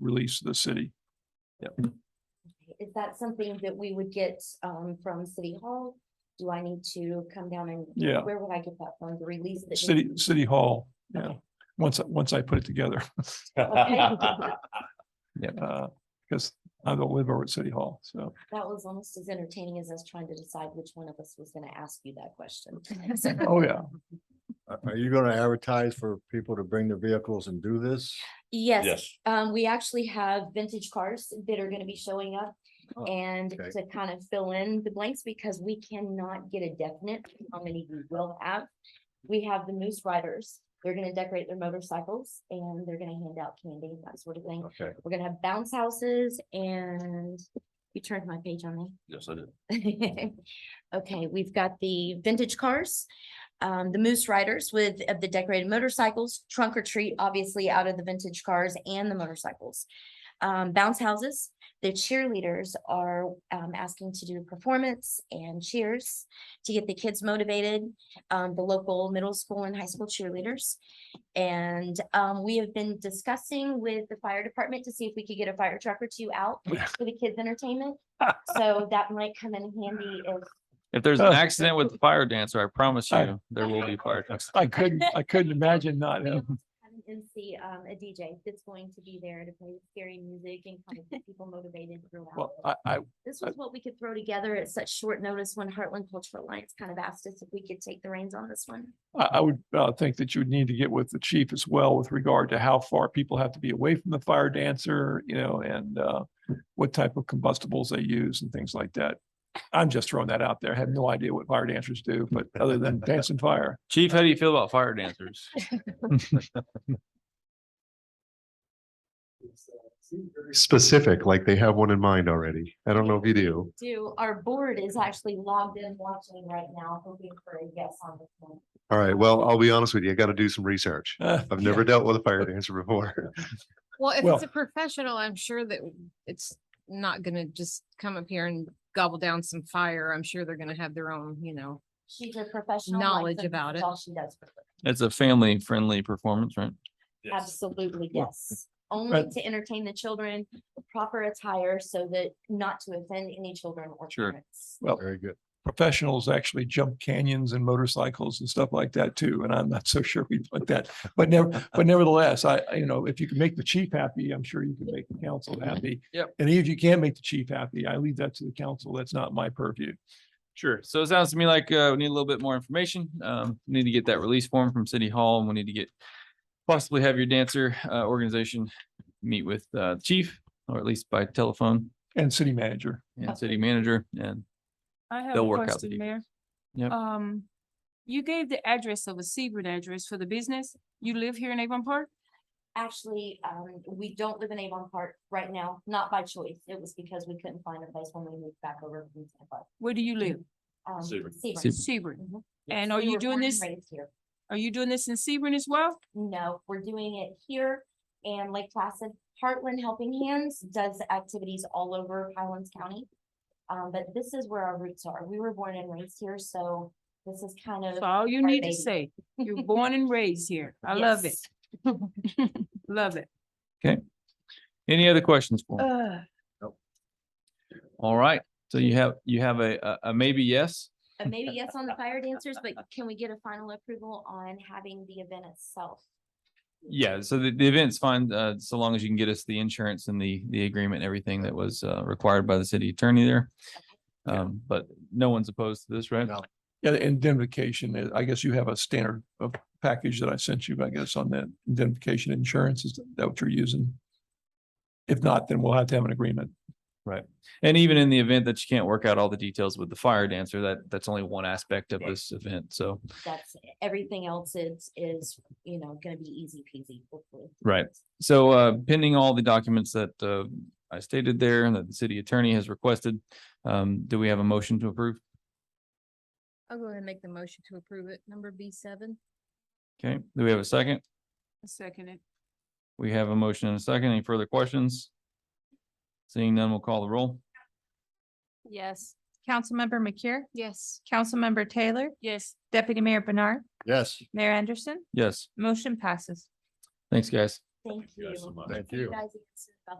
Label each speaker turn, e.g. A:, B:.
A: release to the city.
B: Is that something that we would get um from City Hall? Do I need to come down and?
A: Yeah.
B: Where would I get that from, the release? that needs-
A: City, City Hall, yeah,
B: Okay.
A: once, once I put it together,
B: Okay.
A: uh, because I don't live over at City Hall, so.
B: That was almost as entertaining as us trying to decide which one of us was gonna ask you that question.
A: Oh, yeah,
C: Are- Are you gonna advertise for people to bring their vehicles and do this?
B: Yes,
D: Yes,
B: um, we actually have vintage cars that are gonna be showing up.
C: Oh,
B: And
C: okay.
B: to kind of fill in the blanks, because we cannot get a definite how many we will have. We have the Moose Riders, they're gonna decorate their motorcycles and they're gonna hand out candy, that sort of thing.
C: Okay.
B: We're gonna have bounce houses and you turned my page on me.
D: yes, I did.
B: Okay, we've got the vintage cars, um, the Moose Riders with of the decorated motorcycles, trunk or treat, obviously out of the vintage cars and the motorcycles. Um, bounce houses, the cheerleaders are, um, asking to do performance and cheers to get the kids motivated. Um, the local middle school and high school cheerleaders. And, um, we have been discussing with the fire department to see if we could get a fire truck or two out for the kids' entertainment. So that might come in handy if,
E: If there's an accident with the fire dancer, I promise
A: I-
E: you, there will be fire trucks.
A: I couldn't, I couldn't imagine not, um, having-
B: having an MC, um, a DJ that's going to be there to play scary music and kind of keep people motivated throughout.
A: well, I, I,
B: This was what we could throw together at such short notice when Heartland Cultural Alliance kind of asked us if we could take the reins on this one.
A: I, I would, uh, think that you would need to get with the chief as well with regard to how far people have to be away from the fire dancer, you know, and, uh, what type of combustibles they use and things like that. I'm just throwing that out there. I have no idea what fire dancers do, but other than dancing fire.
E: Chief, how do you feel about fire dancers?
F: specific, like they have one in mind already. I don't know if you do.
B: Do, our board is actually logged in watching right now, hoping for a yes on this one.
F: All right, well, I'll be honest with you, I gotta do some research.
A: Uh,
F: I've never dealt with a fire dancer before.
G: Well, if
A: Well-
G: it's a professional, I'm sure that it's not gonna just come up here and gobble down some fire. I'm sure they're gonna have their own, you know.
B: She's a professional.
G: Knowledge
B: licensed,
G: about
B: that's
G: it.
B: All she does. for a living.
E: It's a family friendly performance, right?
D: Yes.
B: Absolutely,
A: Well,
B: yes. Only
A: but-
B: to entertain the children, proper attire so that not to offend any children or
E: Sure.
B: parents.
C: Very good.
A: professionals actually jump canyons and motorcycles and stuff like that too. And I'm not so sure we put that, but never, but nevertheless, I, I- you know, if you can make the chief happy, I'm sure you can make the council happy.
E: Mm-hmm. Yep.
A: And if you can't make the chief happy, I leave that to the council. That's not my purview.
E: Sure. So it sounds to me like uh, we need a little bit more information. Um, need to get that release form from City Hall and we need to get possibly have your dancer uh, organization meet with uh, the chief or at least by telephone
A: And city manager,
E: and city manager and
H: I have
E: They'll
H: a
E: work out the
H: question,
E: details.
H: Mayor.
E: Yep.
H: Um, you gave the address of a Sebring address for the business. You live here in Avon Park?
B: Actually, um, we don't live in Avon Park right now, not by choice. It was because we couldn't find a place when we moved back over. from Tampa.
H: Where do you live?
B: Um,
D: Sebring.
B: Sebring.
E: Sebring.
H: Sebring.
G: Mm-hmm.
B: Mhm.
H: And are
B: We
H: you
B: were
H: doing
B: born and
H: this,
B: raised here.
H: are you doing this in Sebring as well?
B: No, we're doing it here and Lake Placid. Heartland Helping Hands does activities all over Highlands County. Um, but this is where our roots are. We were born and raised here, so this is kind
H: That's
B: of.
H: all you
B: Our
H: need to
B: baby.
H: say. You're born and raised here. I love it.
B: Yes.
H: Love it.
E: any other questions for him?
H: Uh,
E: All right. So you have, you have a, a- a maybe yes.
B: Uh, Maybe yes on the fire dancers, but can we get a final approval on having the event itself?
E: Yeah, so the, the event's fine, uh, so long as you can get us the insurance and the, the agreement, and everything that was, uh, required by the city attorney there.
C: Yeah.
E: Um, but no one's opposed to this, right?
C: No.
A: yeah, the indemnification, uh, I guess you have a standard of package that I sent you, I guess, on that indemnification insurance, is that what you're using? If not, then we'll have to have an agreement.
E: And even in the event that you can't work out all the details with the fire dancer, that, that's only one aspect of this event, so.
B: That's, everything else is, is, you know, gonna be easy peasy, hopefully.
E: Right. So uh, pending all the documents that uh, I stated there and that the city attorney has requested, um, do we have a motion to approve?
G: I'll go ahead and make the motion to approve it. Number B seven.
E: Okay, do we have a second?
H: I second it.
E: We have a motion and a second. Any further questions? Seeing none, we'll call the roll.
H: Yes.
I: Councilmember McCure,
G: Yes.
I: Councilmember Taylor,
H: Yes.
I: Deputy Mayor Bernard,
C: Yes,
I: Mayor Anderson,
E: Yes,
I: motion passes.
E: thanks, guys.
B: Thank
D: you guys so
B: you.
D: much.
C: thank
B: You
C: you.
B: guys answered